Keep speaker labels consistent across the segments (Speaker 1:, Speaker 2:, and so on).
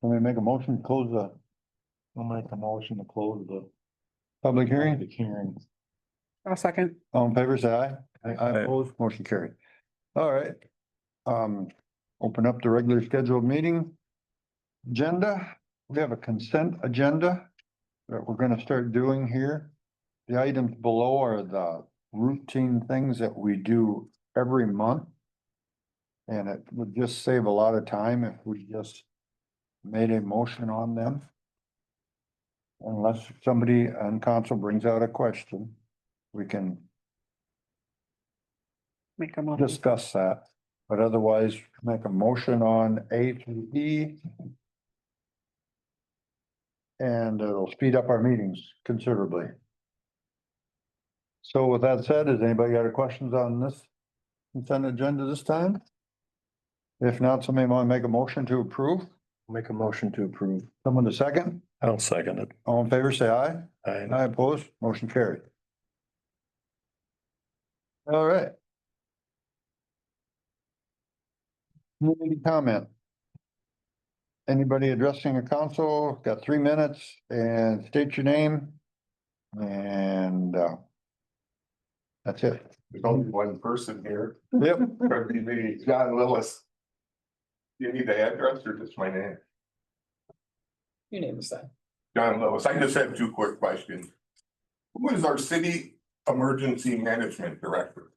Speaker 1: Can we make a motion to close the? I'll make a motion to close the. Public hearing? The hearing.
Speaker 2: I'll second.
Speaker 1: All in favor, say aye. Aye opposed, motion carried. All right. Um, open up the regular scheduled meeting. Agenda, we have a consent agenda that we're gonna start doing here. The items below are the routine things that we do every month. And it would just save a lot of time if we just made a motion on them. Unless somebody on council brings out a question, we can
Speaker 2: Make a motion.
Speaker 1: discuss that, but otherwise make a motion on A through E. And it'll speed up our meetings considerably. So with that said, has anybody got any questions on this consent agenda this time? If not, somebody want to make a motion to approve?
Speaker 3: Make a motion to approve.
Speaker 1: Someone to second?
Speaker 3: I'll second it.
Speaker 1: All in favor, say aye.
Speaker 3: I,
Speaker 1: I oppose, motion carried. All right. Community comment. Anybody addressing a council, got three minutes and state your name. And, uh, that's it.
Speaker 4: There's only one person here,
Speaker 1: Yep,
Speaker 4: probably me, John Lillis. Do You need the address or just my name?
Speaker 5: Your name is that.
Speaker 4: John Lillis, I just have two quick questions. Who is our city emergency management director?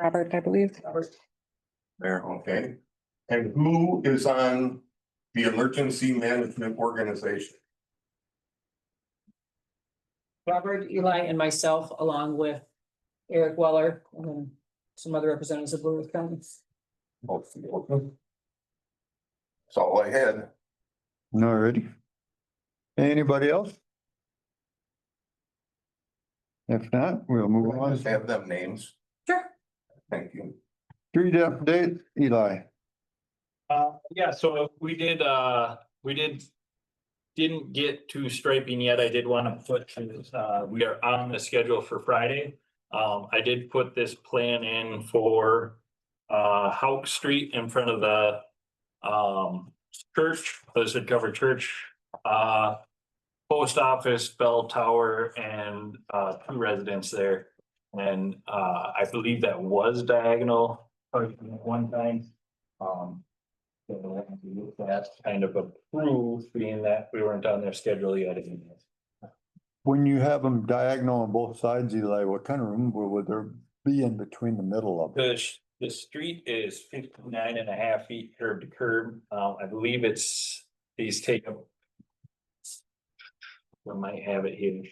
Speaker 2: Robert, I believe.
Speaker 4: There. Okay, and who is on the emergency management organization?
Speaker 5: Robert, Eli, and myself, along with Eric Weller and then some other representatives of Blue Earth County.
Speaker 4: That's all I had.
Speaker 1: all righty. Anybody else? If not, we'll move
Speaker 4: I
Speaker 1: on.
Speaker 4: Just have them names.
Speaker 5: Sure.
Speaker 4: Thank you.
Speaker 1: Street update, Eli.
Speaker 6: Uh, yeah, so we did, uh, we did. Didn't get to striping yet. I did want to put, to, uh, we are on the schedule for Friday. Um, I did put this plan in for, uh, Hauk Street in front of the, um, church, Blizzard Cover Church, uh, post office, bell tower, and, uh, two residents there. And, uh, I believe that was diagonal, or one time. Um, so That's kind of approved, being that we weren't on their schedule yet.
Speaker 1: When you have them diagonal on both sides, Eli, what kind of room would would there be in between the middle of it?
Speaker 6: The, sh- the street is 59 and a half feet curb to curb. Um, I believe it's, these take up. We might have it here.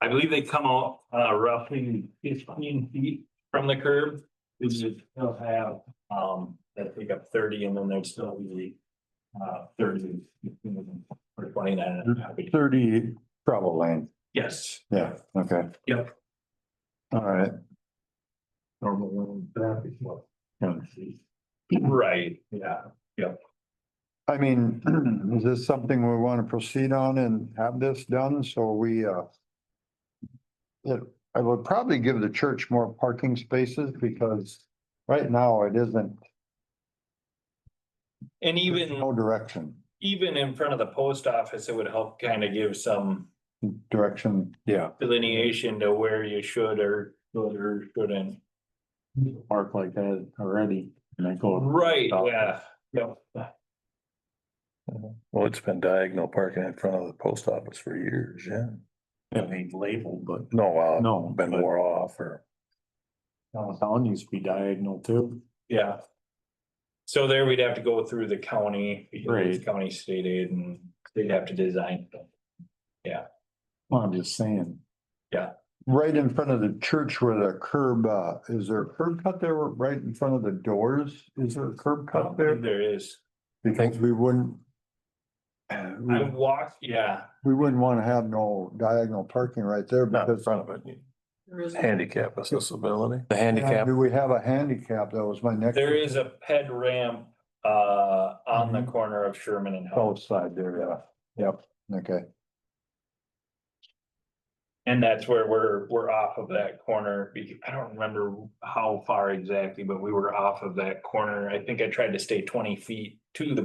Speaker 6: I believe they come out uh, roughly fifteen feet from the curb. This is, they'll have, um, that take up thirty and then there'd still be uh, thirty or twenty-nine and a half feet.
Speaker 1: Thirty travel lane,
Speaker 6: Yes.
Speaker 1: yeah, okay.
Speaker 6: Yep.
Speaker 1: All right,
Speaker 6: Normal traffic. Right, yeah.
Speaker 1: I mean, is this something we want to proceed on and have this done, so we, uh. It, I would probably give the church more parking spaces because right now it isn't, there's
Speaker 6: And even,
Speaker 1: no direction,
Speaker 6: even in front of the post office, it would help kind of give some
Speaker 1: direction. Yeah.
Speaker 6: delineation to where you should or should or shouldn't.
Speaker 3: park like that already and I go.
Speaker 6: Right, yeah, yeah.
Speaker 7: Well, it's been diagonal parking in front of the post office for years, yeah.
Speaker 3: I mean, labeled, but
Speaker 7: No, uh,
Speaker 3: no,
Speaker 7: been wore off or,
Speaker 3: downtown used to be diagonal too.
Speaker 6: Yeah. So there we'd have to go through the county, because it's
Speaker 3: Right.
Speaker 6: county state aid and they'd have to design.
Speaker 3: Well, I'm just saying.
Speaker 1: Right in front of the church where the curb, uh, is there a curb cut there, right in front of the doors? Is there a curb
Speaker 6: Um,
Speaker 1: cut there?
Speaker 6: There is.
Speaker 1: Because we wouldn't.
Speaker 6: I
Speaker 1: We,
Speaker 6: walked, yeah,
Speaker 1: we wouldn't want to have no diagonal parking right there
Speaker 7: not in
Speaker 1: because.
Speaker 7: front of it,
Speaker 5: There is-
Speaker 7: handicap accessibility.
Speaker 3: The handicap.
Speaker 1: Do we have a handicap? That was my next.
Speaker 6: there is a ped ramp uh on
Speaker 1: Mm-hmm.
Speaker 6: the corner of Sherman and
Speaker 1: South
Speaker 6: House.
Speaker 1: side there, yeah. Yep, okay.
Speaker 6: And that's where we're, we're off of that corner, because I don't remember how far exactly, but we were off of that corner. I think I tried to stay twenty feet to the